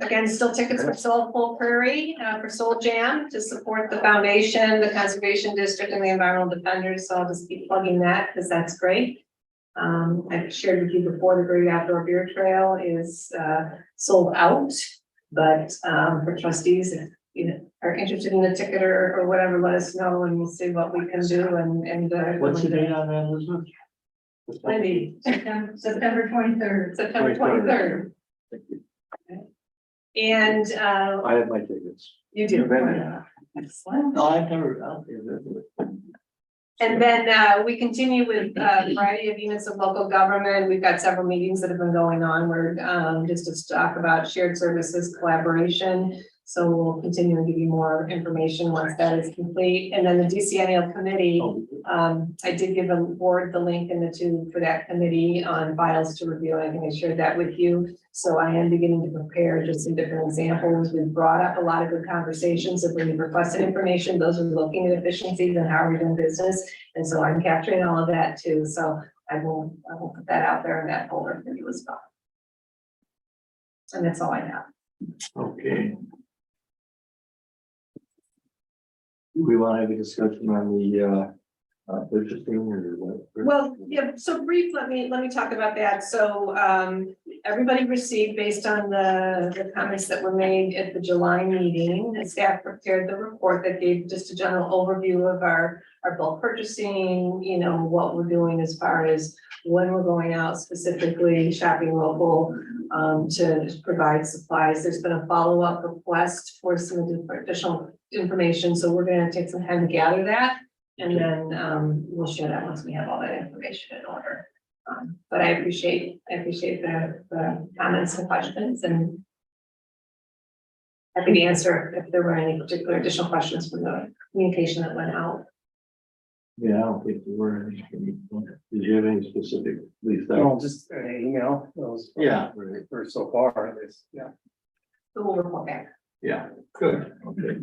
Again, still tickets for Soulful Prairie, uh, for Soul Jam to support the foundation, the Conservation District and the Environmental Defenders. So I'll just keep plugging that because that's great. Um, I've shared with you before, the Great Outdoor Beer Trail is, uh, sold out. But, um, for trustees, if you know, are interested in the ticket or, or whatever, let us know and we'll see what we can do and, and. uh, What's the date on that, Elizabeth? Wendy, September twenty-third. September 23rd. twenty-third. And, uh, I have my tickets. you do. Been there. Excellent. No, I've never, I'll be there. And then uh, we continue with uh, a variety of units of local government. We've got several meetings that have been going on. We're um, just to talk about shared services collaboration. So we'll continue and give you more information once that is complete. And then the DCNL committee, Oh, um, I did give the board the link and the two for that committee on files to review. I think I shared that with you. So I am beginning to prepare just some different examples. We've brought up a lot of good conversations of when you requested information, those are looking at efficiencies and how are we doing business. And so I'm capturing all of that too. So I will, I will put that out there in that folder for you as well. And that's all I have. Oh, Okay. Do we want to have a discussion on the, uh, uh, purchasing or what? Well, yeah, so brief, let me, let me talk about that. So um, everybody received based on the, the comments that were made at the July meeting. The staff prepared the report that gave just a general overview of our, our bulk purchasing, you know, what we're doing as far as when we're going out specifically shopping local um, to provide supplies. There's been a follow-up request for some additional information, so we're gonna take some time to gather that. uh, And then um we'll share that once we have all that information in order. Um, but I appreciate, I appreciate the the comments and questions and. Happy to answer if there were any particular additional questions from the communication that went out. Yeah, I don't think there were any. Did you have any specific, Lisa? No, just an email, those. Yeah, right. For so far, it's, yeah. So we'll report back. Yeah, good, okay.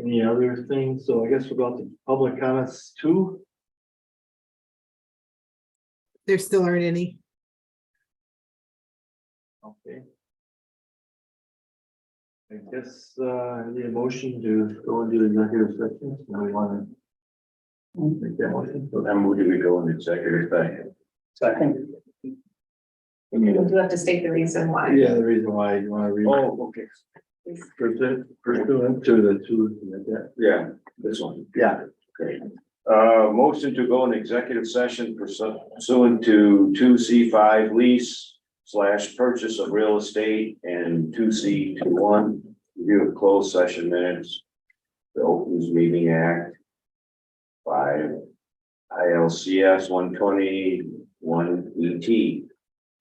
Any other things? So I guess we're about to public comments too. There still aren't any. Okay. I guess, uh, the motion to go into executive session, we wanna. Make that motion. Then we'll do we go into executive session? Second. We do have to state the reason why. Yeah, the reason why you wanna read. Oh, okay. Pursuant pursuant to the two, like that. Yeah, this one. yeah, Great. Uh, motion to go into executive session pursuant to two C five lease slash purchase of real estate and two C two one. Review of closed session minutes. The Opens Meeting Act. Five. I L C S one twenty one E T.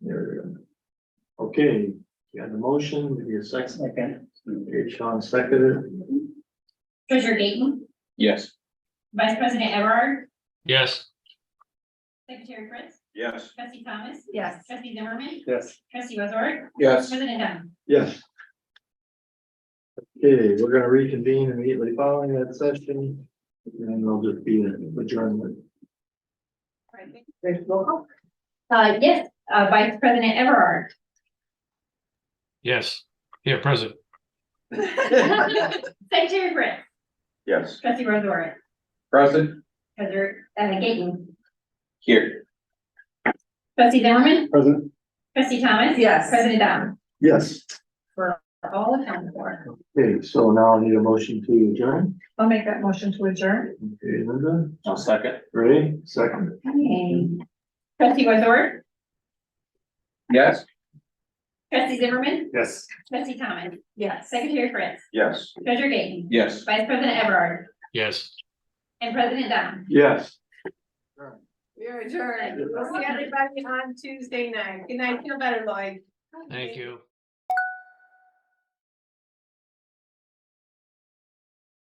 there we go. Okay, you got the motion, we need a second, Second. okay, Sean seconded, Treasurer Gaten, Yes. Vice President Everard, Yes. Secretary Prince, Yes. Trustee Thomas, Yes. Trustee Zimmerman, Yes. Trustee Wazorek, Yes. President Dunn. yes. Okay, we're gonna reconvene immediately following that session, and then there'll just be an adjournment. All right, thank you. Great, roll call. Uh, yes, uh, Vice President Everard, Yes. Yeah, present. Secretary Prince, Yes. Trustee Wazorek, Present. Treasurer, uh, Gaten, Here. Trustee Zimmerman, Present. Trustee Thomas. Yes. President Dunn, Yes, all accounted for. okay, so now I need a motion to adjourn, I'll make that motion to adjourn. okay, Linda, I'll second. Ray, second, Okay. Trustee Wazorek, Yes. Trustee Zimmerman, Yes. Trustee Thomas, Yes. Secretary Prince, Yes. Treasurer Gaten, Yes. Vice President Everard, Yes. and President Dunn. yes. We're adjourned. We'll see everybody on Tuesday night. Good night. Feel better, Lloyd. Thank you.